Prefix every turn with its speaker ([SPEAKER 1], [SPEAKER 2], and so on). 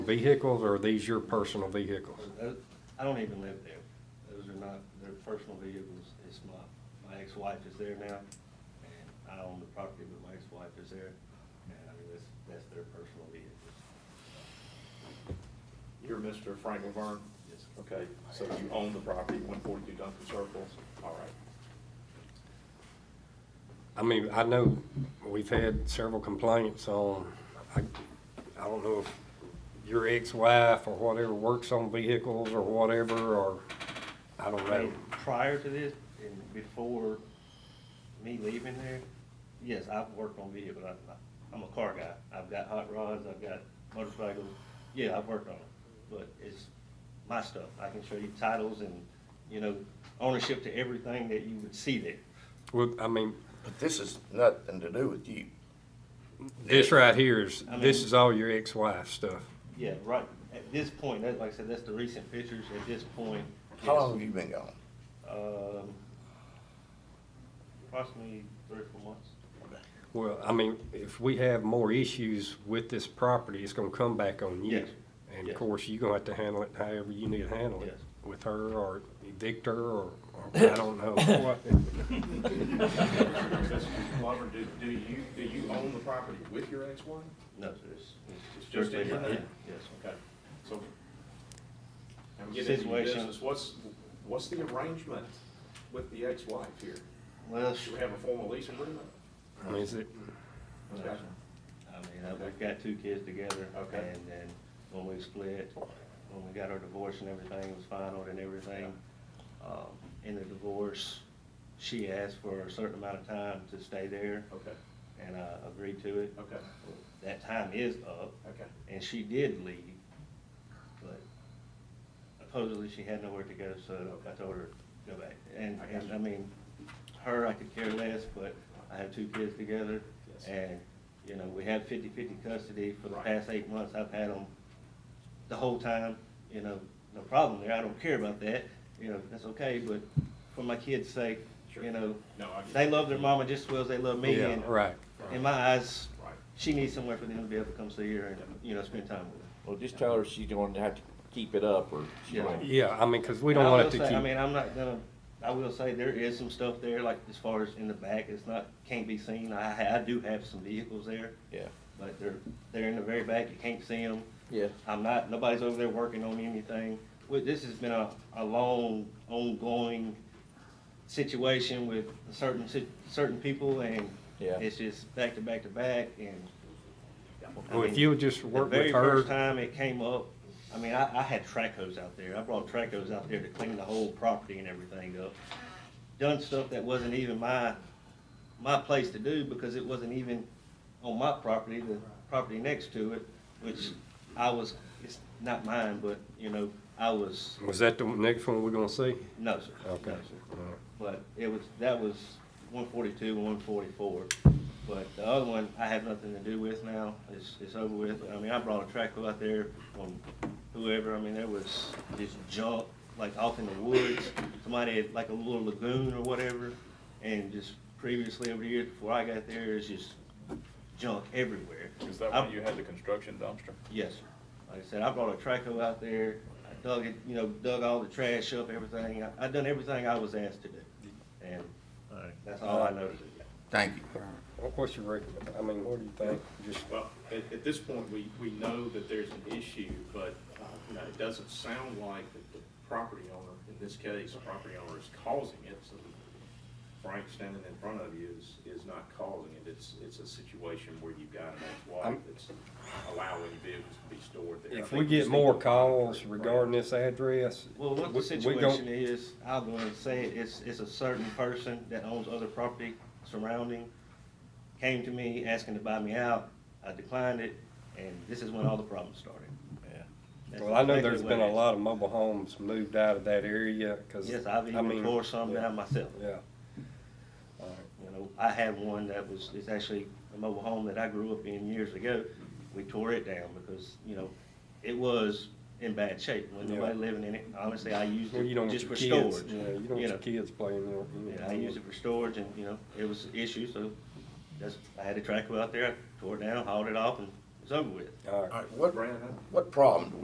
[SPEAKER 1] vehicles, or are these your personal vehicles?
[SPEAKER 2] Those- I don't even live there. Those are not, they're personal vehicles. It's my, my ex-wife is there now, and I own the property, but my ex-wife is there. And I mean, that's, that's their personal vehicles.
[SPEAKER 3] You're Mr. Frank Laverne?
[SPEAKER 2] Yes.
[SPEAKER 3] Okay, so you own the property, one forty-two Duncan Circle, all right.
[SPEAKER 1] I mean, I know we've had several complaints on, I, I don't know if your ex-wife or whatever works on vehicles or whatever, or, I don't
[SPEAKER 2] I
[SPEAKER 1] know.
[SPEAKER 2] mean, prior to this and before me leaving there, yes, I've worked on vehicles. I, I- I'm a car guy. I've got hot rods, I've got motorcycles. Yeah, I've worked on them, but it's my stuff. I can show you titles and, you know, ownership to everything that you would see there.
[SPEAKER 1] Well, I mean,
[SPEAKER 4] But this is nothing to do with you.
[SPEAKER 1] this right here is,
[SPEAKER 2] I
[SPEAKER 1] this
[SPEAKER 2] mean-
[SPEAKER 1] is all your ex-wife stuff.
[SPEAKER 2] Yeah, right. At this point, that, like I said, that's the recent pictures. At this point,
[SPEAKER 4] How
[SPEAKER 2] yes,
[SPEAKER 4] long have you been gone?
[SPEAKER 2] Um, approximately three or four months.
[SPEAKER 1] Well, I mean, if we have more issues with this property, it's gonna come back on you.
[SPEAKER 2] Yes.
[SPEAKER 1] And of
[SPEAKER 2] Yes.
[SPEAKER 1] course, you're gonna have to handle it however you need to handle it,
[SPEAKER 2] Yes.
[SPEAKER 1] with her or evict her or, or I don't know what.
[SPEAKER 3] Mr. Glover, do, do you, do you own the property with your ex-wife?
[SPEAKER 2] No, so it's, it's
[SPEAKER 3] It's just in your name?
[SPEAKER 2] Yes.
[SPEAKER 3] Okay, so, I'm getting into your
[SPEAKER 2] Situation.
[SPEAKER 3] business, what's, what's the arrangement with the ex-wife here?
[SPEAKER 2] Well,
[SPEAKER 3] Do we have a formal lease agreement?
[SPEAKER 1] I mean, Is it,
[SPEAKER 3] Okay.
[SPEAKER 2] I mean, uh, we've got two kids together.
[SPEAKER 3] Okay.
[SPEAKER 2] And then when we split, when we got our divorce and everything it was final and everything, um, in the divorce, she asked for a certain amount of time to stay there.
[SPEAKER 3] Okay,
[SPEAKER 2] And I agreed to it.
[SPEAKER 3] okay,
[SPEAKER 2] That time is up.
[SPEAKER 3] okay.
[SPEAKER 2] And she did leave, but supposedly she had nowhere to go, so I told her, go back. And,
[SPEAKER 3] I got
[SPEAKER 2] and
[SPEAKER 3] you.
[SPEAKER 2] I mean, her, I could care less, but I have two kids together.
[SPEAKER 3] Yes.
[SPEAKER 2] And, you know, we have fifty-fifty custody for the
[SPEAKER 3] Right.
[SPEAKER 2] past eight months. I've had them the whole time, you know, no problem there. I don't care about that, you know, that's okay, but for my kids' sake, you
[SPEAKER 3] Sure.
[SPEAKER 2] know,
[SPEAKER 3] No, I get
[SPEAKER 2] they
[SPEAKER 3] it.
[SPEAKER 2] love their mama just as well as they love me.
[SPEAKER 1] yeah,
[SPEAKER 2] and
[SPEAKER 1] right.
[SPEAKER 2] In my eyes,
[SPEAKER 3] Right.
[SPEAKER 2] she needs somewhere for them to be able to come see her and, you know, spend time with her.
[SPEAKER 5] Well, just tell her she's gonna have to keep it up, or she
[SPEAKER 2] Yeah.
[SPEAKER 5] might,
[SPEAKER 1] Yeah, I mean, cause we
[SPEAKER 2] And
[SPEAKER 1] don't
[SPEAKER 2] I
[SPEAKER 1] want
[SPEAKER 2] will
[SPEAKER 1] it to
[SPEAKER 2] say-
[SPEAKER 1] keep.
[SPEAKER 2] I mean, I'm not gonna, I will say there is some stuff there, like as far as in the back, it's not, can't be seen. I, ha- I do have some vehicles there,
[SPEAKER 5] yeah,
[SPEAKER 2] but they're, they're in the very back, you can't see them.
[SPEAKER 5] yeah.
[SPEAKER 2] I'm not, nobody's over there working on anything. With, this has been a, a long, ongoing situation with certain, si- certain people and
[SPEAKER 5] Yeah.
[SPEAKER 2] it's just back to back to back and. I
[SPEAKER 1] Well, if
[SPEAKER 2] mean,
[SPEAKER 1] you'll just
[SPEAKER 2] The
[SPEAKER 1] work
[SPEAKER 2] very
[SPEAKER 1] with
[SPEAKER 2] first
[SPEAKER 1] her,
[SPEAKER 2] time it came up, I mean, I, I had track hose out there. I brought track hose out there to clean the whole property and everything up. Done stuff that wasn't even my, my place to do because it wasn't even on my property, the property next to it, which I was, it's not mine, but, you know, I was,
[SPEAKER 1] was that the next one we're gonna see?
[SPEAKER 2] no, sir. no,
[SPEAKER 1] Okay.
[SPEAKER 2] sir.
[SPEAKER 1] all right.
[SPEAKER 2] But it was, that was one forty-two and one forty-four. But the other one, I have nothing to do with now. It's, it's over with. I mean, I brought a track out there from whoever. I mean, there was this junk, like off in the woods. Somebody had like a little lagoon or whatever. And just previously over the years before I got there, it's just junk everywhere.
[SPEAKER 6] Is that
[SPEAKER 2] I-
[SPEAKER 6] when you had the construction dumpster?
[SPEAKER 2] Yes, sir. Like I said, I brought a traco out there, I dug it, you know, dug all the trash up, everything. I, I done everything I was asked to do. And that's all I know to do.
[SPEAKER 4] Thank you.
[SPEAKER 1] What- What's your rec, I mean, what do you think? Just,
[SPEAKER 3] Well, at, at this point, we, we know that there's an issue, but, uh, you know, it doesn't sound like that the property owner, in this case, the property owner is causing it, so Frank standing in front of you is, is not causing it, it's, it's a situation where you've got an ex-wife
[SPEAKER 1] I'm-
[SPEAKER 3] that's allowing vehicles to be stored there. I
[SPEAKER 1] if
[SPEAKER 3] think
[SPEAKER 1] we
[SPEAKER 3] just
[SPEAKER 1] get
[SPEAKER 3] need
[SPEAKER 1] more
[SPEAKER 3] to-
[SPEAKER 1] calls regarding this address.
[SPEAKER 2] Well, what
[SPEAKER 1] we-
[SPEAKER 2] the
[SPEAKER 1] we gon-
[SPEAKER 2] situation is, I'll go and say it, it's, it's a certain person that owns other property surrounding, came to me asking to buy me out, I declined it, and this is when all the problems started.
[SPEAKER 5] Yeah.
[SPEAKER 2] That's
[SPEAKER 1] Well, I know
[SPEAKER 2] exactly
[SPEAKER 1] there's
[SPEAKER 2] what
[SPEAKER 1] been
[SPEAKER 2] it
[SPEAKER 1] a
[SPEAKER 2] is.
[SPEAKER 1] lot of mobile homes moved out of that area, cause.
[SPEAKER 2] Yes, I've
[SPEAKER 1] I mean,
[SPEAKER 2] even tore some
[SPEAKER 1] yeah,
[SPEAKER 2] down myself.
[SPEAKER 1] Yeah.
[SPEAKER 2] Uh, You know, I had one that was, it's actually a mobile home that I grew up in years ago. We tore it down because, you know, it was in bad shape, when
[SPEAKER 1] Yeah.
[SPEAKER 2] nobody living in it. Honestly, I used
[SPEAKER 1] Well,
[SPEAKER 2] it
[SPEAKER 1] you don't want
[SPEAKER 2] just
[SPEAKER 1] your
[SPEAKER 2] for
[SPEAKER 1] kids,
[SPEAKER 2] storage.
[SPEAKER 1] yeah, you don't want
[SPEAKER 2] you
[SPEAKER 1] your
[SPEAKER 2] know.
[SPEAKER 1] kids playing there. you
[SPEAKER 2] Yeah,
[SPEAKER 1] know.
[SPEAKER 2] I used it for storage and, you know, it was an issue, so that's, I had a track out there, I tore it down, hauled it off and
[SPEAKER 7] it's
[SPEAKER 2] it's
[SPEAKER 7] over with.
[SPEAKER 8] All right.
[SPEAKER 4] All right, what,
[SPEAKER 2] Brad, I-
[SPEAKER 4] what problem do we